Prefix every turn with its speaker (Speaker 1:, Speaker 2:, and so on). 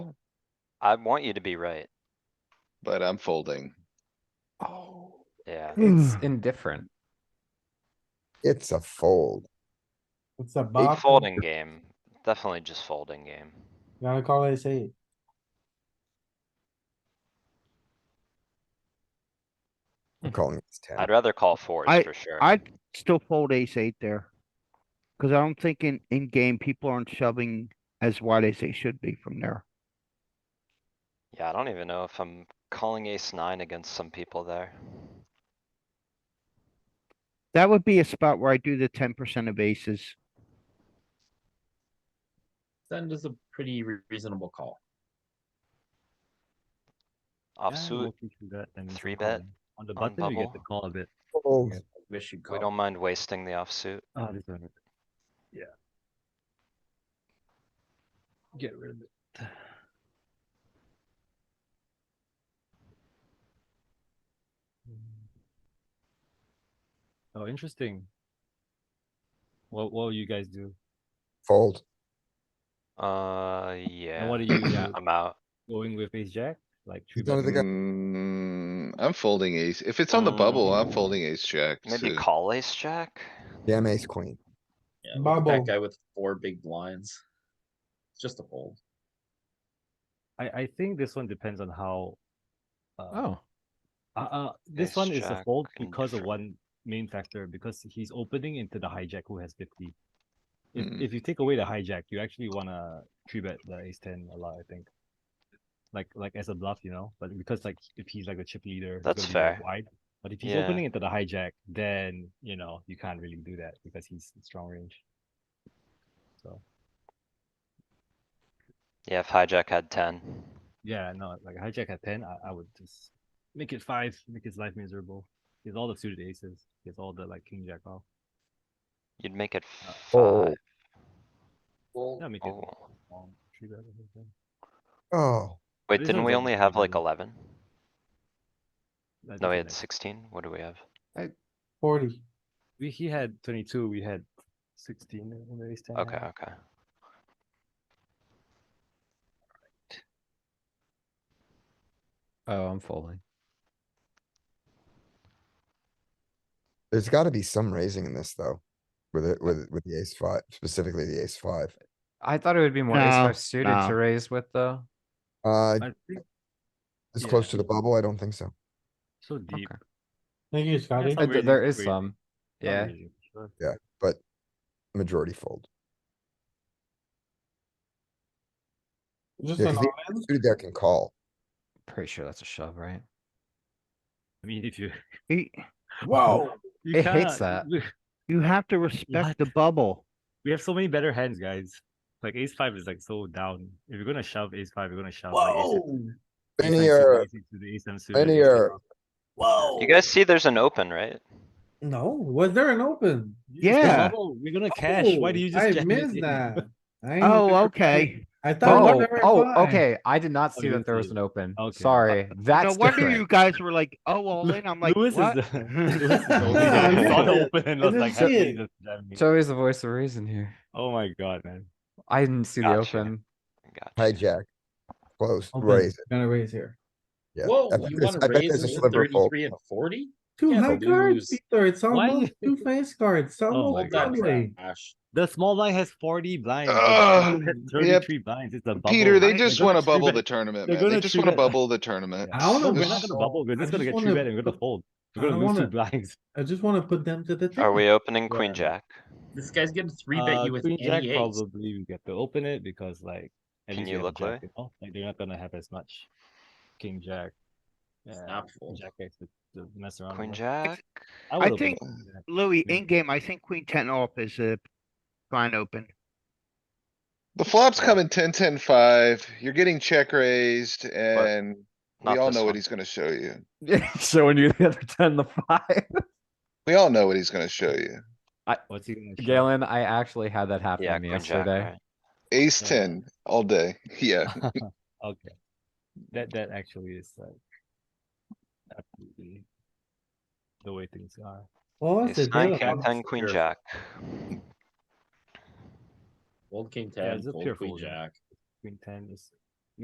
Speaker 1: I want you to be right.
Speaker 2: but I'm folding.
Speaker 3: Oh,
Speaker 1: Yeah,
Speaker 4: It's
Speaker 5: Hmm.
Speaker 6: Mm.
Speaker 4: indifferent.
Speaker 5: It's a fold.
Speaker 3: it's a
Speaker 1: big
Speaker 3: box.
Speaker 1: folding game. Definitely just folding game.
Speaker 3: Gotta call ace eight.
Speaker 6: Mm-hmm.
Speaker 5: I'm calling this ten.
Speaker 1: I'd rather call fours
Speaker 7: I-
Speaker 1: for sure.
Speaker 7: I'd still fold ace eight there. Cause I don't think in, in game, people aren't shoving as wide as they should be from there.
Speaker 1: Yeah, I don't even know if I'm calling ace nine against some people there.
Speaker 7: That would be a spot where I do the ten percent of aces.
Speaker 8: Send is a pretty re- reasonable call.
Speaker 1: Offsuit, three bet
Speaker 6: On the
Speaker 1: on
Speaker 6: button, you get
Speaker 1: bubble.
Speaker 6: to call a bit.
Speaker 5: Fold.
Speaker 8: Wish you'd call.
Speaker 1: we don't mind wasting the offsuit.
Speaker 8: Oh,
Speaker 6: Ah, this one.
Speaker 8: get rid of it.
Speaker 6: Oh, interesting. What, what will you guys do?
Speaker 5: Fold.
Speaker 1: Uh, yeah.
Speaker 6: And what are you yeah,
Speaker 1: I'm out.
Speaker 6: going with ace jack? Like three
Speaker 5: He's one of the
Speaker 6: bet?
Speaker 5: guys.
Speaker 2: Mm, I'm folding ace. If it's on the bubble, I'm folding ace jack.
Speaker 1: Maybe
Speaker 2: suit.
Speaker 1: call ace jack?
Speaker 5: Damn ace queen.
Speaker 8: Yeah, look at
Speaker 3: Bubble.
Speaker 8: that guy with four big blinds. It's just a fold.
Speaker 6: I, I think this one depends on how. Uh,
Speaker 4: Oh,
Speaker 6: uh, uh, this
Speaker 1: Ace
Speaker 6: one is a
Speaker 1: jack
Speaker 6: fold
Speaker 1: and
Speaker 6: because of
Speaker 1: different.
Speaker 6: one main factor, because he's opening into the hijack who has fifty. If,
Speaker 1: Hmm.
Speaker 2: Mm.
Speaker 6: if you take away the hijack, you actually wanna three bet the ace ten a lot, I think. Like, like as a bluff, you know, but because like, if he's like a chip leader. he's
Speaker 1: That's
Speaker 6: gonna be more
Speaker 1: fair.
Speaker 6: Wide, but if he's
Speaker 1: Yeah.
Speaker 6: opening into the hijack, then, you know, you can't really do that because he's strong range. So,
Speaker 1: Yeah, if hijack had ten.
Speaker 6: yeah, no, like hijack at ten, I, I would just make it five, make his life miserable. He has all the suited aces, he has all the like king jack off.
Speaker 1: You'd make it
Speaker 6: Uh,
Speaker 1: five.
Speaker 6: Yeah, make it
Speaker 1: Oh.
Speaker 6: long, three bet or something.
Speaker 5: Oh,
Speaker 1: Wait,
Speaker 6: These
Speaker 1: didn't
Speaker 6: ones
Speaker 1: we
Speaker 6: are
Speaker 1: only have like
Speaker 6: pretty-
Speaker 1: eleven? No,
Speaker 6: I think
Speaker 1: we
Speaker 6: he
Speaker 1: had sixteen? What do we have?
Speaker 3: Forty.
Speaker 6: We, he had twenty-two, we had sixteen in the ace ten.
Speaker 1: Okay, okay.
Speaker 4: oh, I'm folding.
Speaker 5: there's gotta be some raising in this though. With it, with, with the ace five, specifically the ace five.
Speaker 4: I thought it would be more ace
Speaker 7: No,
Speaker 4: five suited
Speaker 7: no.
Speaker 4: to raise with though.
Speaker 5: Uh,
Speaker 6: I think
Speaker 5: this
Speaker 6: yeah.
Speaker 5: close to the bubble, I don't think so.
Speaker 6: so deep.
Speaker 4: Okay.
Speaker 3: Thank you, Scotty.
Speaker 6: Not
Speaker 4: Uh, th- There
Speaker 6: raising,
Speaker 4: is
Speaker 6: raising.
Speaker 4: some.
Speaker 6: not
Speaker 4: Yeah,
Speaker 6: raising, sure.
Speaker 5: Majority fold.
Speaker 3: Just
Speaker 5: Yeah,
Speaker 3: an
Speaker 5: 'cause the-
Speaker 3: all-in.
Speaker 5: Suited there can call.
Speaker 4: pretty sure that's a shove, right?
Speaker 6: I mean, if you.
Speaker 7: You,
Speaker 3: Whoa.
Speaker 6: you
Speaker 4: It hates
Speaker 6: cannot-
Speaker 4: that.
Speaker 6: we-
Speaker 7: you have to respect the bubble.
Speaker 6: We have so many better hands, guys. Like ace five is like so down. If you're gonna shove ace five, you're gonna shove. like, ace-
Speaker 3: Whoa.
Speaker 6: ace nine suited,
Speaker 5: Benny or,
Speaker 6: ace eight suited, ace seven suited, ace
Speaker 5: Benny
Speaker 6: eight
Speaker 5: or,
Speaker 6: off.
Speaker 3: Whoa.
Speaker 1: You guys see there's an open, right?
Speaker 3: No, was there an open?
Speaker 6: You just
Speaker 7: Yeah.
Speaker 6: double, We're gonna cash. Why
Speaker 3: Oh,
Speaker 6: do you just?
Speaker 3: I
Speaker 6: jam
Speaker 3: missed
Speaker 6: it?
Speaker 3: that. I ain't
Speaker 7: Oh,
Speaker 3: look at-
Speaker 7: okay.
Speaker 3: I thought.
Speaker 4: Oh,
Speaker 3: there were five.
Speaker 4: oh, okay. I did not see
Speaker 6: you
Speaker 4: that there was
Speaker 6: see.
Speaker 4: an open.
Speaker 6: Okay.
Speaker 4: Sorry,
Speaker 7: No
Speaker 4: that's
Speaker 7: wonder you
Speaker 4: different.
Speaker 7: guys were like, oh, all in. I'm like,
Speaker 6: Lewis
Speaker 7: what?
Speaker 6: is the. Lewis is the only
Speaker 3: Yeah,
Speaker 6: guy
Speaker 3: I
Speaker 6: who saw
Speaker 3: missed
Speaker 6: the
Speaker 3: it.
Speaker 6: open and
Speaker 3: I
Speaker 6: was like,
Speaker 3: didn't
Speaker 6: happy
Speaker 3: see
Speaker 6: he
Speaker 3: it.
Speaker 6: just jammed me.
Speaker 4: Joey's the voice of reason here.
Speaker 6: Oh my god, man.
Speaker 4: I didn't see the
Speaker 1: Gotcha.
Speaker 4: open.
Speaker 1: Gotcha.
Speaker 5: hijack. Close,
Speaker 3: Open.
Speaker 5: raise it,
Speaker 3: Gonna raise here.
Speaker 5: yeah.
Speaker 8: Whoa,
Speaker 5: I bet
Speaker 8: you
Speaker 5: there's-
Speaker 8: want
Speaker 5: I
Speaker 8: to
Speaker 5: bet
Speaker 8: raise
Speaker 5: there's a
Speaker 8: it to
Speaker 5: sliver of fold.
Speaker 8: 33 and 40?
Speaker 3: Two
Speaker 8: Yeah,
Speaker 3: high
Speaker 8: but
Speaker 3: cards,
Speaker 8: lose.
Speaker 3: Peter. It's
Speaker 6: Why
Speaker 3: almost two face cards. It's
Speaker 6: Oh my
Speaker 3: almost
Speaker 6: God.
Speaker 3: doubling.
Speaker 8: Gosh.
Speaker 6: The small blind has forty blinds.
Speaker 2: Ah, yep.
Speaker 6: Thirty-three blinds. It's a bubble.
Speaker 2: Peter, they
Speaker 6: Like,
Speaker 2: just
Speaker 6: we're
Speaker 2: wanna
Speaker 6: gonna three
Speaker 2: bubble
Speaker 6: bet-
Speaker 2: the tournament,
Speaker 6: they're
Speaker 2: man. They
Speaker 6: gonna
Speaker 2: just
Speaker 6: three
Speaker 2: wanna
Speaker 6: bet.
Speaker 2: bubble the tournament.
Speaker 3: I don't know,
Speaker 2: This
Speaker 6: We're
Speaker 3: man.
Speaker 6: not
Speaker 2: is-
Speaker 6: gonna bubble. We're
Speaker 3: I
Speaker 6: just gonna
Speaker 3: just
Speaker 6: get three
Speaker 3: wanna
Speaker 6: bet and we're gonna
Speaker 3: put-
Speaker 6: fold.
Speaker 3: I
Speaker 6: We're gonna
Speaker 3: don't
Speaker 6: lose two
Speaker 3: wanna-
Speaker 6: blinds.
Speaker 3: I just wanna put them to the.
Speaker 1: Are
Speaker 3: table.
Speaker 1: we opening
Speaker 8: Yeah.
Speaker 1: queen jack?
Speaker 8: This guy's gonna three bet
Speaker 6: Uh,
Speaker 8: you with E
Speaker 6: queen jack
Speaker 8: any ace.
Speaker 6: probably we get to open it because like at
Speaker 1: Can
Speaker 6: least
Speaker 1: you
Speaker 6: you have a
Speaker 1: look, Louis?
Speaker 6: jack, you know? like they're not gonna have as much king jack.
Speaker 8: It's
Speaker 6: uh,
Speaker 8: not full.
Speaker 6: jack X to, to mess around.
Speaker 1: Queen
Speaker 6: with.
Speaker 1: jack?
Speaker 6: would
Speaker 7: I
Speaker 6: open
Speaker 7: think-
Speaker 6: queen jack.
Speaker 7: Louis,
Speaker 6: Yeah.
Speaker 7: in game, I think queen ten off is a fine open.
Speaker 2: The flop's coming ten, ten, five. You're getting check raised and we
Speaker 1: Not
Speaker 2: all
Speaker 1: this
Speaker 2: know what
Speaker 1: one.
Speaker 2: he's gonna show you.
Speaker 4: Showing you the other ten, the five.
Speaker 2: We all know what he's gonna show you.
Speaker 6: What's he gonna shove?
Speaker 4: Galen, I actually had that happen
Speaker 1: Yeah,
Speaker 4: to me
Speaker 1: queen jack,
Speaker 4: yesterday.
Speaker 1: right?
Speaker 2: Ace
Speaker 6: Yeah.
Speaker 2: ten all day. Yeah.
Speaker 6: okay, that that actually is like absolutely the way things are.
Speaker 3: What was the
Speaker 1: Ace nine,
Speaker 3: deal
Speaker 1: king
Speaker 3: about
Speaker 1: ten, queen
Speaker 8: Here.
Speaker 1: jack.
Speaker 8: Fold king
Speaker 6: Yeah,
Speaker 8: ten,
Speaker 6: it's a
Speaker 8: fold
Speaker 6: pure
Speaker 8: queen
Speaker 6: fold, yeah.
Speaker 8: jack.
Speaker 6: Queen ten is